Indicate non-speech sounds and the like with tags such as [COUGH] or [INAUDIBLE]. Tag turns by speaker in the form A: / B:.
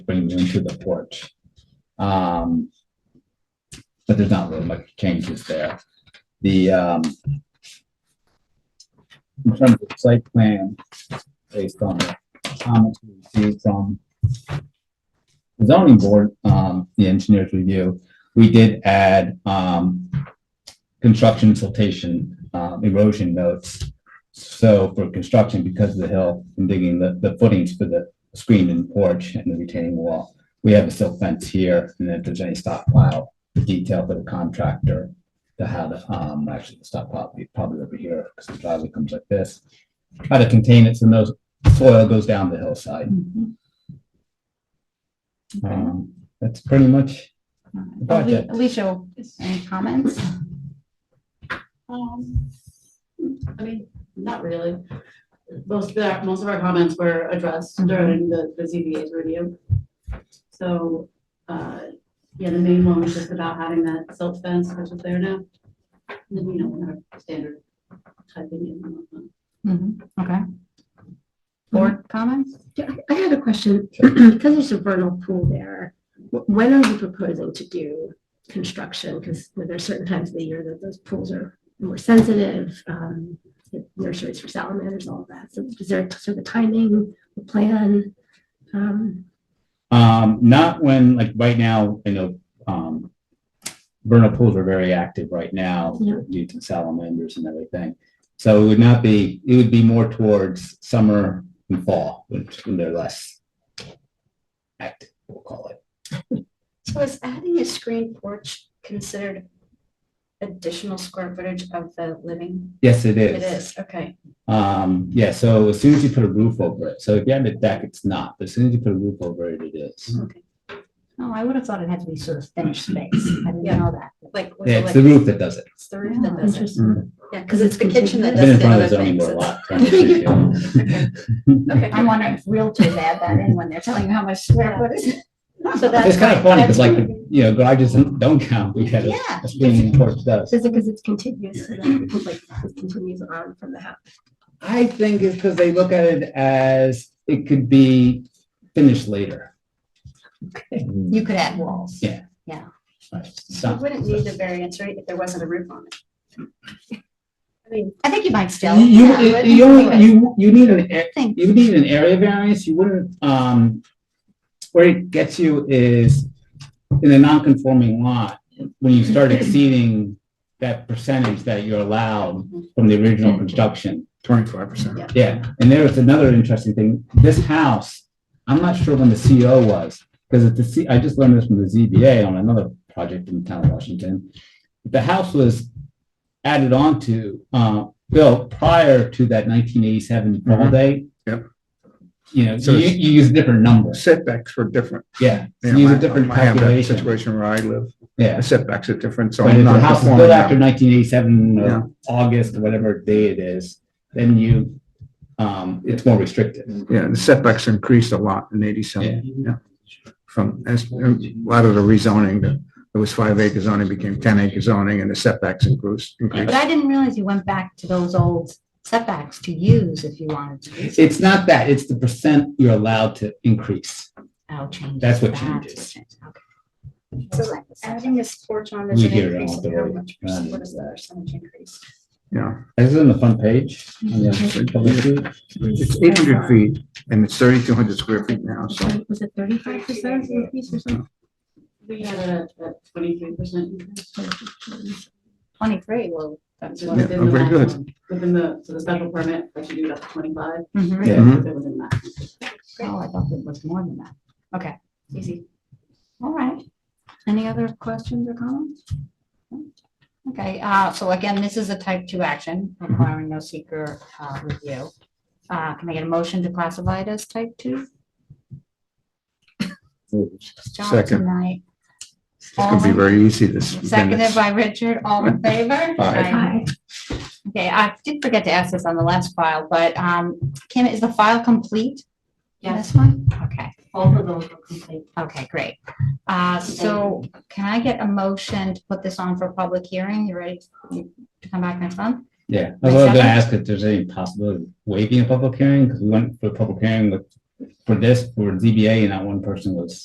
A: bring them to the porch. Um, but there's not really much changes there. The, um, in terms of site plan, based on the comments we received from the zoning board, um, the engineer's review, we did add, um, construction siltation, um, erosion notes. So for construction, because of the hill and digging the, the footings for the screen and porch and the retaining wall, we have a silt fence here, and if there's any stockpile detail for the contractor to have, um, actually the stockpile, be probably over here, because the driveway comes like this. Try to contain it so no soil goes down the hillside.
B: Mhm. Okay.
A: Um, that's pretty much,
B: Uh, Ali-
A: Project.
B: Alicia, any comments?
C: Um, I mean, not really. Most of our, most of our comments were addressed during the, the ZBA's review. So, uh, yeah, the main one was just about having that silt fence, which is there now. And Then, you know, we have our standard typing and whatnot.
B: Mhm. Okay. Mm-hmm. Board comments?
D: Yeah, I I had a question, [CLEARS THROAT] because there's a vernal pool there, wh- when are you proposing to do construction? Because there are certain times of the year that those pools are more sensitive, um, the nurseries for salamanders, all of that. So is there a sort of a timing, a plan? Um,
A: um, not when, like, right now, I know, um, vernal pools are very active right now
D: Yeah.
A: due to salamanders and everything. So it would not be, it would be more towards summer and fall, which when they're less active, we'll call it.
E: So is adding a screen porch considered additional square footage of the living?
A: Yes, it
E: It
A: is.
E: is, okay.
A: Um, yeah, so as soon as you put a roof over it, so if you have a deck, it's not, but as soon as you put a roof over it, it is.
B: Oh, I would have thought it had to be sort of finished space. I didn't
E: Yeah.
B: know that.
E: Like, was it
A: Yeah, it's
E: like-
A: the roof that does it.
E: It's the roof that
B: Yeah.
E: does it.
D: interesting.
E: Yeah, because it's the kitchen that
A: I've been
E: does
A: in
E: the
A: front
E: other
A: of the zoning
E: things.
A: board a lot. trying to
E: Okay. Okay.
B: I'm wondering if realtors add that in when they're telling you how much square footage.
E: So that's
A: It's kind of
E: why-
A: funny, because
E: that's
A: like,
E: why-
A: you know, garages don't count, we had a,
B: Yeah.
A: a screening porch does.
D: Is it because it's contiguous, so that it, like, it continues on from the house?
A: I think it's because they look at it as it could be finished later.
B: You could add walls.
A: Yeah.
B: Yeah.
E: You wouldn't need the variance, right, if there wasn't a roof on it. I mean,
B: I think you might still.
A: You, you-
B: Yeah.
A: you, only- you, you need an, a-
B: Think.
A: you would need an area variance, you wouldn't, um, where it gets you is in a non-conforming lot, when you start exceeding that percentage that you're allowed from the original construction.
F: Twenty-five percent.
A: Yeah, and there was another interesting thing, this house, I'm not sure when the CO was, because at the C, I just learned this from the ZBA on another project in the town of Washington. The house was added on to, uh, built prior to that nineteen eighty-seven fall
F: Mhm.
A: date.
F: Yep.
A: You know,
F: So
A: you,
F: it's-
A: you use different numbers,
F: Setbacks were different.
A: yeah,
F: Yeah,
A: you use
F: I-
A: a different
F: I have that
A: calculation,
F: Situation where I live,
A: yeah.
F: the setbacks are different, so
A: But
F: I'm
A: if
F: not
A: the house is built after
F: conforming.
A: nineteen eighty-seven,
F: Yeah.
A: August, whatever day it is, then you, um, it's more restricted.
F: Yeah, the setbacks increased a lot in eighty-seven, yeah. From, as, a lot of the rezoning, the- it was five acre zoning became ten acre zoning and the setbacks increased.
B: But
F: increased.
B: I didn't realize you went back to those old setbacks to use if you wanted to use.
A: It's not that, it's the percent you're allowed to increase.
B: Oh, change.
A: That's what
B: That's
A: changes.
B: changes. Okay.
E: so adding this porch on
A: We
E: there's an
A: hear it
E: increase
A: all
E: of
A: the
E: how
A: way.
E: much,
A: Yeah, I
E: percent- what is the
A: know that.
E: percentage increase?
F: Yeah,
A: Is it on the front page? on the public view?
F: it's eight hundred feet and it's thirty-two hundred square feet now, so.
D: Was it thirty-five percent increase or something?
C: We had a, a twenty-three percent increase.
B: Twenty-three, well,
C: That's
B: that's
C: within
B: what.
F: Yeah, oh,
C: the
F: very good.
C: maximum- Within the, so the special permit, that you do it up to twenty-five.
B: Mhm.
A: Yeah.
F: Mhm.
C: Within the maximum.
B: Oh, I thought it was more than that. Okay, easy. All right. Any other questions or comments? Okay, uh, so again, this is a type two action requiring no seeker, uh, review. Uh, can I get a motion to classify it as type two? John
F: Second.
B: tonight.
F: It's gonna be
B: All-
F: very easy this.
B: Seconded
F: minutes.
B: by Richard, all in favor?
F: Aye.
B: Okay, I did forget to ask this on the last file, but, um, Kim, is the file complete? on
C: Yes.
B: This one? Okay.
C: Both of those were complete.
B: Okay, great. Uh, So can I get a motion to put this on for public hearing? You ready to come back next month?
A: Yeah, I was gonna ask if there's any possibility of waiving a public hearing, because we went for a public hearing with for this, for ZBA, and not one person was